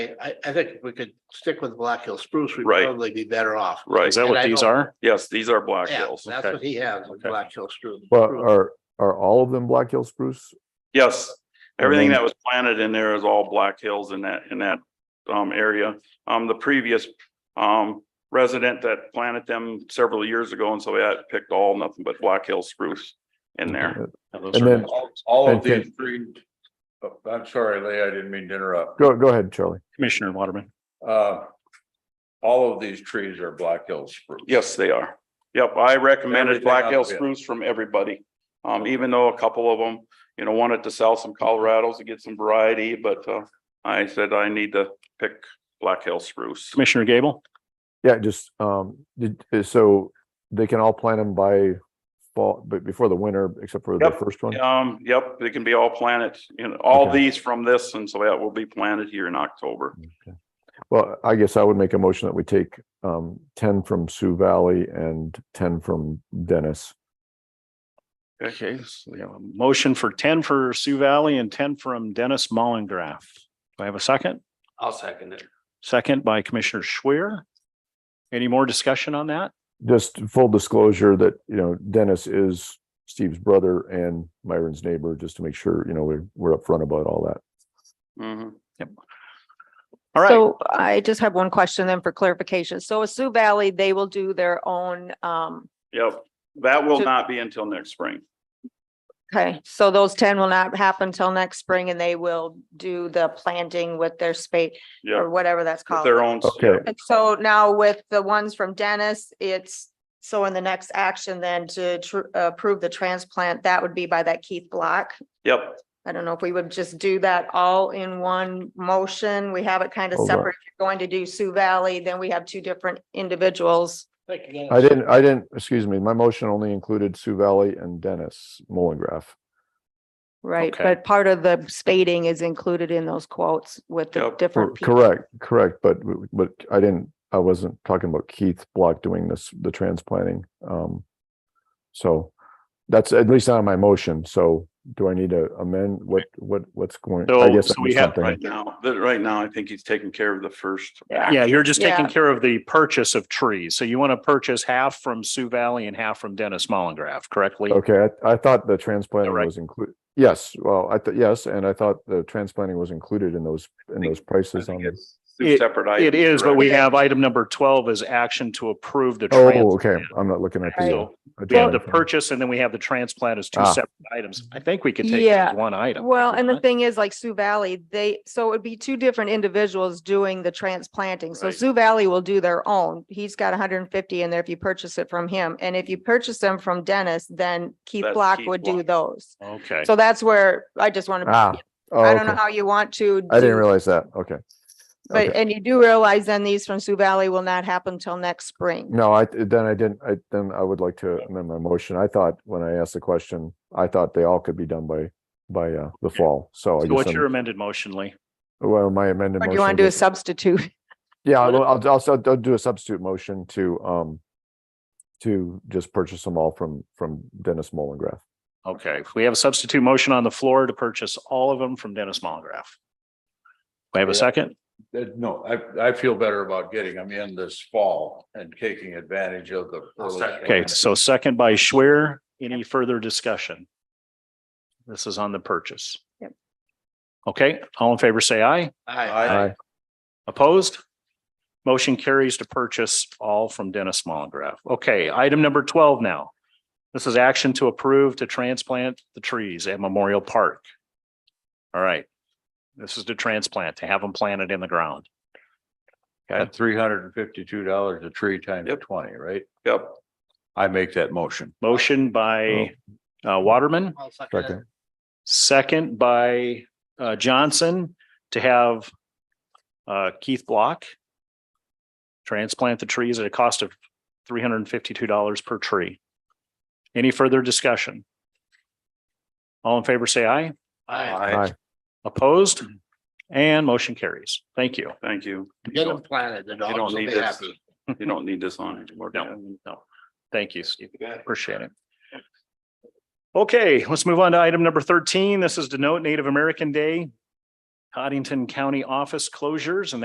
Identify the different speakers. Speaker 1: I, I think if we could stick with Black Hill spruce, we'd
Speaker 2: Right.
Speaker 1: probably be better off.
Speaker 2: Right,
Speaker 3: Is that
Speaker 1: And I
Speaker 3: what these
Speaker 1: don't-
Speaker 3: are?
Speaker 2: yes, these are Black
Speaker 1: Yeah,
Speaker 2: Hills.
Speaker 1: that's
Speaker 3: okay.
Speaker 1: what he has, with
Speaker 3: Okay.
Speaker 1: Black Hill spruce.
Speaker 4: Well,
Speaker 1: spruce.
Speaker 4: are, are all of them Black Hill spruce?
Speaker 2: Yes, everything
Speaker 4: then-
Speaker 3: Mm-hmm.
Speaker 2: that was planted in there is all Black Hills in that, in that um area. Um, the previous um resident that planted them several years ago, and so that picked all nothing but Black Hill spruce in there.
Speaker 4: Uh, And then,
Speaker 5: All- All of
Speaker 4: And can-
Speaker 5: these three, oh, I'm sorry, Lee, I didn't mean to interrupt.
Speaker 4: go, go ahead, Charlie.
Speaker 3: Commissioner Waterman.
Speaker 5: Uh, All of these trees are Black Hill spruce.
Speaker 2: Yes, they are. Yep, I recommended
Speaker 5: Everything
Speaker 2: Black Hill
Speaker 5: up, yeah.
Speaker 2: spruce from everybody. Um, even though a couple of them, you know, wanted to sell some Colorados to get some variety, but uh I said I need to pick Black Hill spruce.
Speaker 3: Commissioner Gable,
Speaker 4: Yeah, just, um, did, uh, so they can all plant them by fall, but before the winter, except for the
Speaker 2: Yep.
Speaker 4: first one?
Speaker 2: Um, yep, they can be all planted, you know, all
Speaker 4: Okay.
Speaker 2: these from this, and so that will be planted here in October.
Speaker 4: Okay. Well, I guess I would make a motion that we take, um, ten from Sioux Valley and ten from Dennis.
Speaker 3: okay, so we have a motion for ten for Sioux Valley and ten from Dennis Mollengrath. Do I have a second?
Speaker 6: I'll second it.
Speaker 3: Second by Commissioner Schwer. Any more discussion on that?
Speaker 4: Just full disclosure that, you know, Dennis is Steve's brother and Myron's neighbor, just to make sure, you know, we're, we're upfront about all that.
Speaker 2: Mhm.
Speaker 3: All right,
Speaker 7: So I just have one question then for clarification. So at Sioux Valley, they will do their own, um,
Speaker 2: Yep, that will
Speaker 7: So-
Speaker 2: not be until next spring.
Speaker 7: okay, so those ten will not happen till next spring and they will do the planting with their spade
Speaker 2: Yeah,
Speaker 7: or whatever that's
Speaker 2: with
Speaker 7: called.
Speaker 2: their own.
Speaker 4: Okay,
Speaker 7: And so now with the ones from Dennis, it's, so in the next action then to tr- approve the transplant, that would be by that Keith Block.
Speaker 2: Yep,
Speaker 7: I don't know if we would just do that all in one motion. We have it kind of
Speaker 4: Hold on.
Speaker 7: separate. If you're going to do Sioux Valley, then we have two different individuals.
Speaker 1: Thank you,
Speaker 4: I
Speaker 1: Dennis.
Speaker 4: didn't, I didn't, excuse me, my motion only included Sioux Valley and Dennis Mullengraff.
Speaker 7: Right,
Speaker 3: Okay.
Speaker 7: but part of the spading is included in those quotes with the
Speaker 2: Yep,
Speaker 4: Cor-
Speaker 7: different. people.
Speaker 4: Correct, correct, but, w- but I didn't, I wasn't talking about Keith Block doing this, the transplanting. Um, so that's at least on my motion. So do I need to amend what, what, what's going? I
Speaker 3: So-
Speaker 4: guess
Speaker 3: so
Speaker 4: I
Speaker 3: we
Speaker 4: missed
Speaker 3: have-
Speaker 4: something.
Speaker 2: right now, that right now, I think he's taking care of the first.
Speaker 7: Yeah.
Speaker 3: yeah, you're just taking
Speaker 7: Yeah.
Speaker 3: care of the purchase of trees. So you want to purchase half from Sioux Valley and half from Dennis Mollengrath, correctly?
Speaker 4: Okay, I, I thought the transplanting
Speaker 3: right.
Speaker 4: was included. Yes, well, I, thought yes, and I thought the transplanting was included in those, in those
Speaker 2: I
Speaker 4: prices on
Speaker 2: think
Speaker 4: this.
Speaker 2: it's two
Speaker 3: It-
Speaker 2: separate
Speaker 3: It
Speaker 2: items,
Speaker 3: is, but
Speaker 2: correct?
Speaker 3: we have item number twelve is action to approve the.
Speaker 4: Oh, okay,
Speaker 3: transplant.
Speaker 4: I'm not looking at the. uh,
Speaker 3: So we have
Speaker 4: agenda
Speaker 3: the
Speaker 4: thing.
Speaker 3: purchase and then we have the transplant as two
Speaker 4: Ah.
Speaker 3: separate items. I think we could take it
Speaker 7: Yeah.
Speaker 3: as one item.
Speaker 7: Well, and the
Speaker 3: Right?
Speaker 7: thing is like Sioux Valley, they, so it would be two different individuals doing the transplanting. So
Speaker 2: Right.
Speaker 7: Sioux Valley will do their own. He's got hundred and fifty in there if you purchase it from him. And if you purchase them from Dennis, then Keith
Speaker 2: That's
Speaker 7: Block
Speaker 2: Keith
Speaker 7: would do
Speaker 2: Block.
Speaker 7: those.
Speaker 3: Okay,
Speaker 7: So that's where I just want to,
Speaker 4: Ah, oh,
Speaker 7: I don't know
Speaker 4: okay.
Speaker 7: how you want to.
Speaker 4: I
Speaker 7: do-
Speaker 4: didn't realize that. Okay.
Speaker 7: But,
Speaker 4: Okay.
Speaker 7: and you do realize then these from Sioux Valley will not happen till next spring.
Speaker 4: No, I, then I didn't, I, then I would like to amend my motion. I thought, when I asked the question, I thought they all could be done by, by, uh, the fall, so. I
Speaker 3: so
Speaker 4: guess
Speaker 3: what's
Speaker 4: I'm-
Speaker 3: your amended motion, Lee?
Speaker 4: Well, my amended
Speaker 7: Or do
Speaker 4: motion.
Speaker 7: you want to do a
Speaker 4: is-
Speaker 7: substitute?
Speaker 4: Yeah, I'll, I'll, I'll, sub- I'll do a substitute motion to, um, to just purchase them all from, from Dennis Mollengrath.
Speaker 3: Okay, we have a substitute motion on the floor to purchase all of them from Dennis Mollengrath. We have a
Speaker 5: Yeah.
Speaker 3: second?
Speaker 5: Uh, No, I, I feel better about getting them in this fall and taking advantage of the. early-
Speaker 3: Okay, so second by Schwer. Any further discussion? This is on the purchase.
Speaker 7: Yep.
Speaker 3: Okay, all in favor, say aye.
Speaker 1: Aye.
Speaker 5: I-
Speaker 4: Aye.
Speaker 3: Opposed? Motion carries to purchase all from Dennis Mollengrath. Okay, item number twelve now. This is action to approve to transplant the trees at Memorial Park. All right. This is to transplant, to have them planted in the ground.
Speaker 5: At three hundred and fifty-two dollars a tree times
Speaker 2: Yep.
Speaker 5: twenty, right?
Speaker 2: Yep,
Speaker 5: I make that motion.
Speaker 3: Motion by uh, Waterman,
Speaker 1: I'll second it.
Speaker 4: Second.
Speaker 3: second by uh, Johnson to have uh, Keith Block transplant the trees at a cost of three hundred and fifty-two dollars per tree. Any further discussion? All in favor, say aye.
Speaker 1: Aye.
Speaker 2: Aye.
Speaker 4: Aye.
Speaker 3: Opposed? And motion carries. Thank you.
Speaker 2: thank you.
Speaker 1: Get them planted, the
Speaker 2: You
Speaker 1: dogs
Speaker 2: don't
Speaker 1: will
Speaker 2: need
Speaker 1: be
Speaker 2: this,
Speaker 1: happy.
Speaker 2: you don't need this on anymore.
Speaker 3: No, no. Thank you, Steve.
Speaker 2: Yeah.
Speaker 3: Appreciate it. Okay, let's move on to item number thirteen. This is to note Native American Day. Cottington County office closures, and